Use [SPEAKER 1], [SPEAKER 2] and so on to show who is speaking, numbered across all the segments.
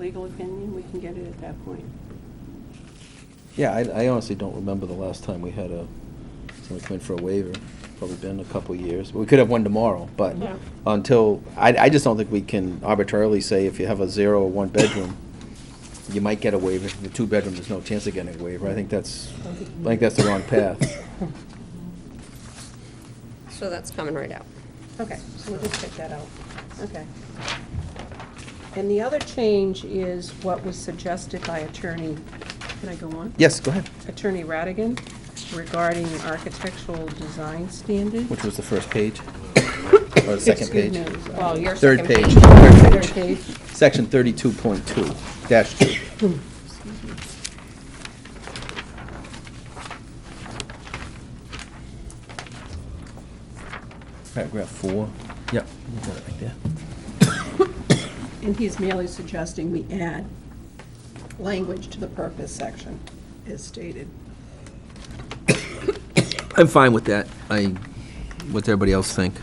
[SPEAKER 1] legal opinion, we can get it at that point.
[SPEAKER 2] Yeah, I I honestly don't remember the last time we had a, someone come in for a waiver. Probably been a couple of years. We could have one tomorrow, but
[SPEAKER 1] Yeah.
[SPEAKER 2] until, I, I just don't think we can arbitrarily say if you have a zero or one bedroom, you might get a waiver. The two bedroom, there's no chance of getting a waiver. I think that's, I think that's the wrong path.
[SPEAKER 3] So that's coming right out.
[SPEAKER 1] Okay, so we'll just take that out. Okay. And the other change is what was suggested by attorney, can I go on?
[SPEAKER 2] Yes, go ahead.
[SPEAKER 1] Attorney Radigan regarding architectural design standards.
[SPEAKER 2] Which was the first page? Or the second
[SPEAKER 1] Excuse
[SPEAKER 2] page?
[SPEAKER 1] me.
[SPEAKER 3] Well, your
[SPEAKER 2] Third
[SPEAKER 3] second
[SPEAKER 2] page,
[SPEAKER 3] page.
[SPEAKER 2] third
[SPEAKER 1] Third
[SPEAKER 2] page.
[SPEAKER 1] page.
[SPEAKER 2] Section thirty-two point two, dash two. Paragraph four. Yep. you got it right there.
[SPEAKER 1] And he's merely suggesting we add language to the purpose section as stated.
[SPEAKER 2] I'm fine with that. I, what's everybody else think?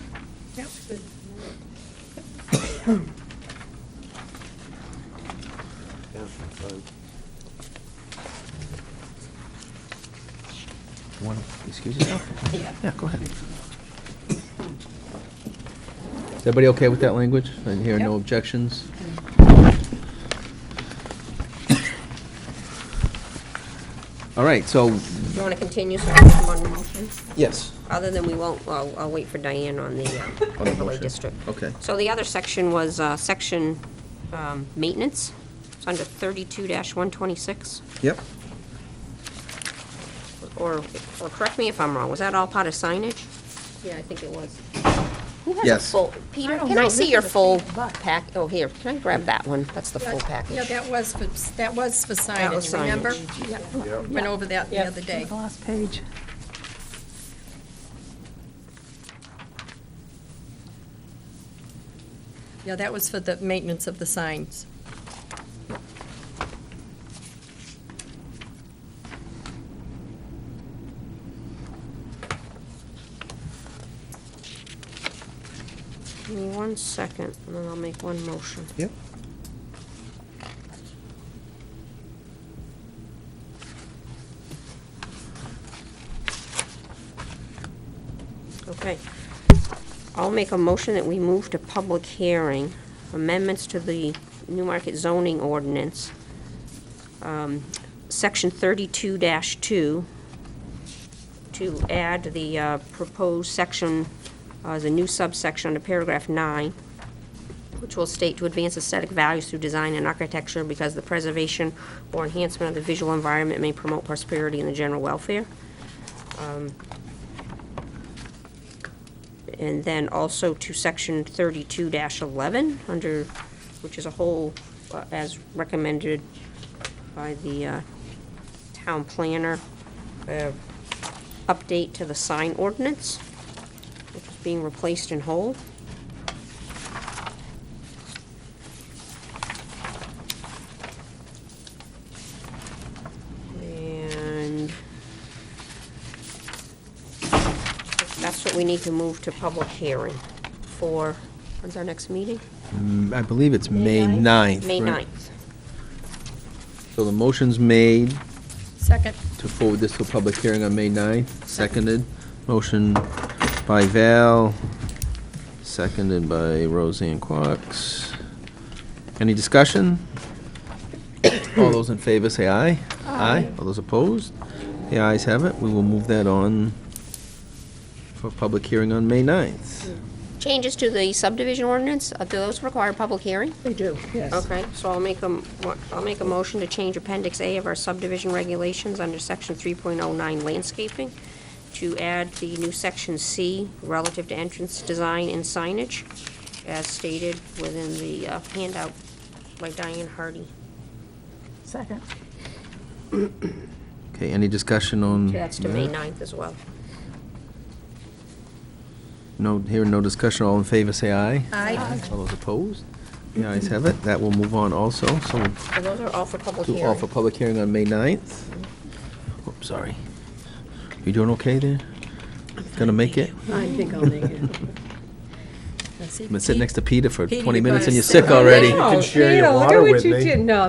[SPEAKER 1] Yep.
[SPEAKER 2] Want to excuse yourself?
[SPEAKER 1] Yeah.
[SPEAKER 2] Yeah, go ahead. Is everybody okay with that language? I hear no objections? All right, so,
[SPEAKER 3] You want to continue so there's one motion?
[SPEAKER 2] yes.
[SPEAKER 3] Other than we won't, I'll, I'll wait for Diane on the uh, overlay
[SPEAKER 2] motion.
[SPEAKER 3] district.
[SPEAKER 2] Okay.
[SPEAKER 3] So the other section was, uh, section, um, maintenance. It's under thirty-two one twenty-six,
[SPEAKER 2] Yep.
[SPEAKER 3] or, or correct me if I'm wrong, was that all part of signage? Yeah, I think it was. Who has a
[SPEAKER 2] Yes.
[SPEAKER 3] full, Peter, can I see your full pack, oh, here, can I grab that one? That's the full package.
[SPEAKER 4] Yeah, that was, for- that was for
[SPEAKER 3] was
[SPEAKER 4] signage,
[SPEAKER 3] signage.
[SPEAKER 4] remember? Yeah, Went over that the other day.
[SPEAKER 1] last page.
[SPEAKER 4] Yeah, that was for the maintenance of the signs.
[SPEAKER 3] Give me one second, and then I'll make one motion.
[SPEAKER 2] Yep.
[SPEAKER 3] Okay. I'll make a motion that we move to public hearing, amendments to the New Market zoning ordinance, um, section thirty-two two, to add the uh, proposed section, uh, the new subsection under paragraph nine, which will state to advance aesthetic values through design and architecture because the preservation or enhancement of the visual environment may promote prosperity and the general welfare. Um, And then also to section thirty-two eleven, under, which is a whole, uh, as recommended by the uh, town planner, uh, update to the sign ordinance, which is being replaced in whole. And that's what we need to move to public hearing for, when's our next meeting?
[SPEAKER 2] I believe it's May 9th.
[SPEAKER 3] May
[SPEAKER 2] right?
[SPEAKER 3] 9th.
[SPEAKER 2] So the motion's made
[SPEAKER 4] Second,
[SPEAKER 2] to forward this to a public hearing on May 9th, seconded. Motion by Val, seconded by Roseanne Quox. Any discussion? All those in favor say aye. Aye. All those opposed? The ayes have it. We will move that on for public hearing on May 9th.
[SPEAKER 3] Changes to the subdivision ordinance, uh, do those require public hearing?
[SPEAKER 1] They do, yes.
[SPEAKER 3] Okay, so I'll make a, m- I'll make a motion to change Appendix A of our subdivision regulations under Section 3.09 landscaping to add the new Section C relative to entrance design and signage as stated within the uh, handout by Diane Hardy.
[SPEAKER 1] Second.
[SPEAKER 2] Okay, any discussion on?
[SPEAKER 3] That's to May
[SPEAKER 2] that?
[SPEAKER 3] 9th as well.
[SPEAKER 2] No, hearing no discussion, all in favor, say aye.
[SPEAKER 4] aye.
[SPEAKER 2] All those opposed? The ayes have it. That will move on also, so we'll
[SPEAKER 3] So those are all for public
[SPEAKER 2] to
[SPEAKER 3] hearing.
[SPEAKER 2] offer public hearing on May 9th. Oops, sorry. You doing okay there? Gonna make it?
[SPEAKER 1] I think I'll make it.
[SPEAKER 4] Now, see,
[SPEAKER 2] I've been sitting
[SPEAKER 4] Pete-
[SPEAKER 2] next to Peter for
[SPEAKER 4] Pete,
[SPEAKER 2] 20
[SPEAKER 4] you
[SPEAKER 2] minutes and
[SPEAKER 4] probably
[SPEAKER 2] you're sick
[SPEAKER 4] sit right
[SPEAKER 2] already.
[SPEAKER 1] No,
[SPEAKER 5] share your
[SPEAKER 1] Peter, look at
[SPEAKER 5] water
[SPEAKER 1] what
[SPEAKER 5] with
[SPEAKER 1] you
[SPEAKER 5] me.
[SPEAKER 1] did. No,